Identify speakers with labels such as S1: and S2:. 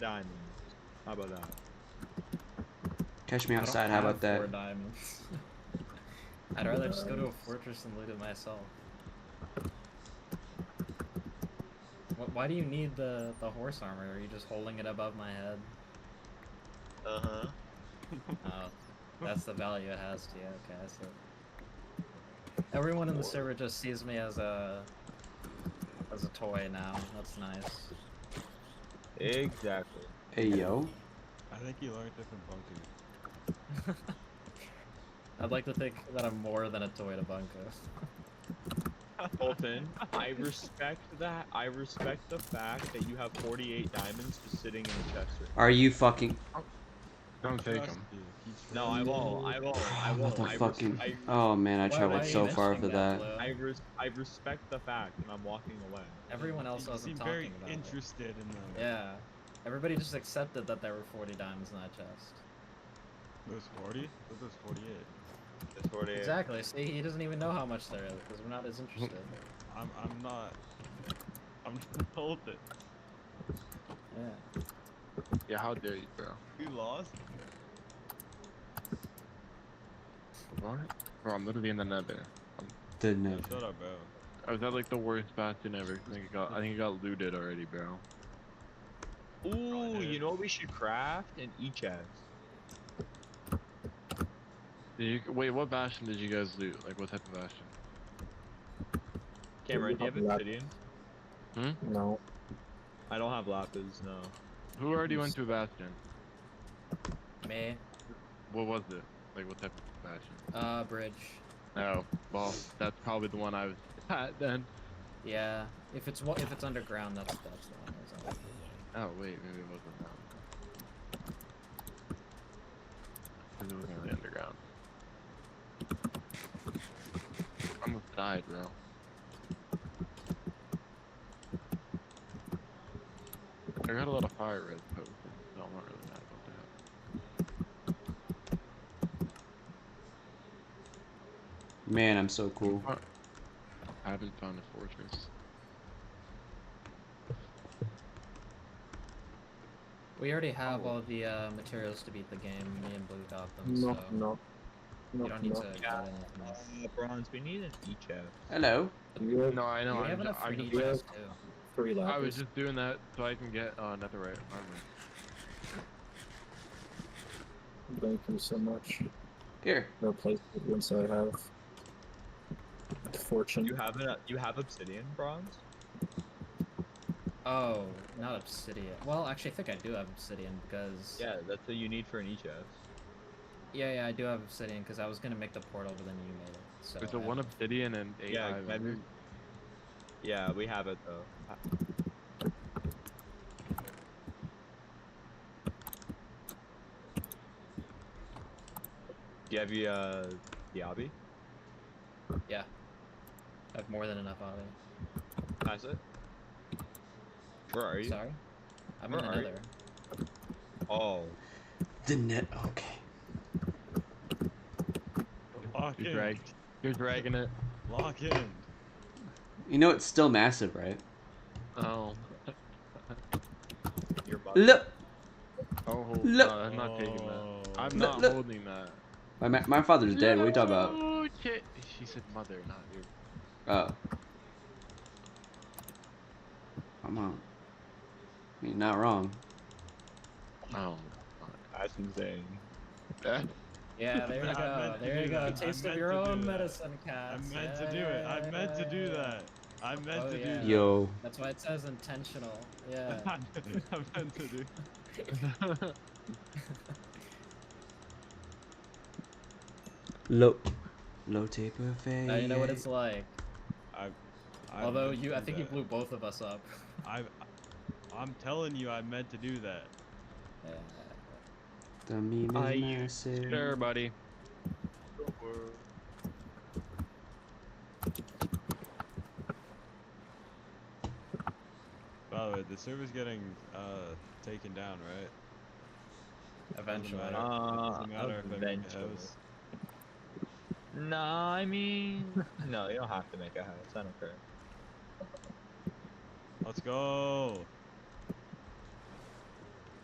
S1: Diamond. How about that?
S2: Catch me
S3: I don't
S2: outside. How
S3: have
S2: about that?
S3: Four diamonds. I'd rather just go to a fortress and loot it myself. Wh- Why do you need the, the horse armor? Are you just holding it above my head?
S4: Uh huh.
S3: Oh, that's the value it has to you. Okay, I see. Everyone in the server just sees me as a as a toy now. That's nice.
S1: Exactly.
S2: Hey yo.
S5: I think you learned it from Bunker.
S3: I'd like to think that I'm more than a toy to Bunko.
S1: Colton, I respect that. I respect the fact that you have 48 diamonds just sitting in the chest right
S2: Are you fucking?
S5: Don't
S1: take
S5: him.
S1: now. No, I won't. I won't. I won't. I,
S2: Motherfucking.
S1: res- I,
S2: Oh man, I
S3: Why- why
S2: traveled
S3: are you
S2: so far
S3: mentioning
S2: for that.
S3: Blue?
S1: I, res- I respect the fact and I'm walking away.
S3: Everyone else
S5: you seem
S3: wasn't talking
S5: very
S3: about it.
S5: interested in the,
S3: Yeah. Everybody just accepted that there were 40 diamonds in that chest.
S5: those 40. Those those 48.
S1: It's 48.
S3: Exactly. See, he doesn't even know how much there is because we're not as interested.
S5: I'm I'm not. I'm just told it.
S3: yeah.
S4: Yeah, how dare you, bro?
S5: We lost.
S4: What? Bro, I'm literally in the nether.
S2: Didn't
S5: Yeah,
S2: it?
S5: shut up, bro.
S4: I was at like the worst bastion ever. I think it got, I think it got looted already, bro.
S1: Ooh,
S5: Probably
S1: you
S5: did.
S1: know what we should craft? An e-chest.
S4: Did you, wait, what bastion did you guys loot? Like, what type of bastion?
S1: Cameron, do you have obsidian?
S6: No.
S1: I don't have lapis, no.
S4: Who already went to a bastion?
S3: Me,
S4: What was it? Like, what type of bastion?
S3: uh, Bridge.
S4: Oh, well, that's probably the one I was at then.
S3: Yeah. If it's wa- if it's underground, that's that's the one. That's all.
S4: Oh wait, maybe it wasn't that. one. Cause it wasn't really underground. I almost died, bro. I got a lot of fire red potions, so I'm not really mad about that.
S2: Man, I'm so cool.
S4: I haven't found a fortress.
S3: We already have all the uh, materials to beat the game. Me and Blue got them,
S6: No,
S3: so
S6: no. No,
S3: you don't need
S6: no.
S3: to get
S1: Yeah.
S3: anything
S1: Uh,
S3: else.
S1: bronze, we need an e-chest.
S2: Hello.
S6: You have
S4: No, I know.
S3: we have
S4: I'm, ju-
S3: enough for
S4: I'm
S3: each
S4: just,
S6: Yeah.
S3: chest too.
S6: three
S4: I was
S6: lapis.
S4: just doing that so I can get uh, netherite armor.
S6: Thank you so much.
S2: Here.
S6: No place once I have the fortune.
S1: You have an, you have obsidian, bronze?
S3: Oh, not obsidian. Well, actually, I think I do have obsidian because
S1: Yeah, that's what you need for an E e-chest.
S3: yeah, yeah, I do have obsidian because I was gonna make the portal, but then you made it. So
S4: There's a
S3: I
S4: one
S3: have-
S4: obsidian and eight
S1: Yeah,
S4: iron.
S1: maybe- Yeah, we have it though. Do you have your, uh, Diaby?
S3: I have more than enough of it.
S1: Pass it. Where are you?
S3: Sorry? I'm
S1: Where
S3: in the
S1: are you?
S3: nether.
S1: Oh,
S2: The net. Okay.
S5: Lock
S4: You're,
S5: in.
S4: drag- you're dragging it.
S5: Lock in.
S2: You know it's still massive, right?
S4: Oh.
S1: your butt.
S2: Look.
S4: Oh,
S2: Look-
S4: no, I'm not taking that. Oh.
S5: Oh.
S4: I'm
S2: Look,
S4: not
S2: look.
S4: holding that.
S2: My ma- my father's dead. What are you talking about?
S4: Oh, shit. She said mother, not you.
S2: Oh. Come on. I mean, not wrong.
S4: Oh.
S1: That's insane.
S4: Eh,
S3: Yeah, there you
S5: I
S3: go.
S5: meant to
S3: There you
S5: do
S3: go.
S5: that. I
S3: Taste of
S5: meant
S3: your
S5: to do
S3: own
S5: that.
S3: medicine,
S5: I
S3: cats.
S5: meant to do it. I meant to do
S3: Yeah.
S5: that. I meant
S3: Oh,
S5: to
S3: yeah.
S5: do
S2: Yo.
S3: That's why it says intentional. Yeah.
S5: that. I meant to do.
S2: Low. Low tape buffet.
S3: now you know what it's like.
S5: I. I
S3: Although
S5: meant to
S3: you, I
S5: do
S3: think you
S5: that.
S3: blew both of us up.
S5: I. I'm telling you, I meant to do that.
S3: Yeah.
S2: The meme
S4: I
S2: is
S4: used
S2: massive.
S4: sure, buddy.
S5: By the way, the server's getting uh taken down, right?
S3: Eventually.
S5: matter.
S1: Uh,
S5: Doesn't matter if I make a
S1: eventually.
S5: house.
S1: Nah, I mean, no, you don't have to make a house. I don't care.
S5: Let's go.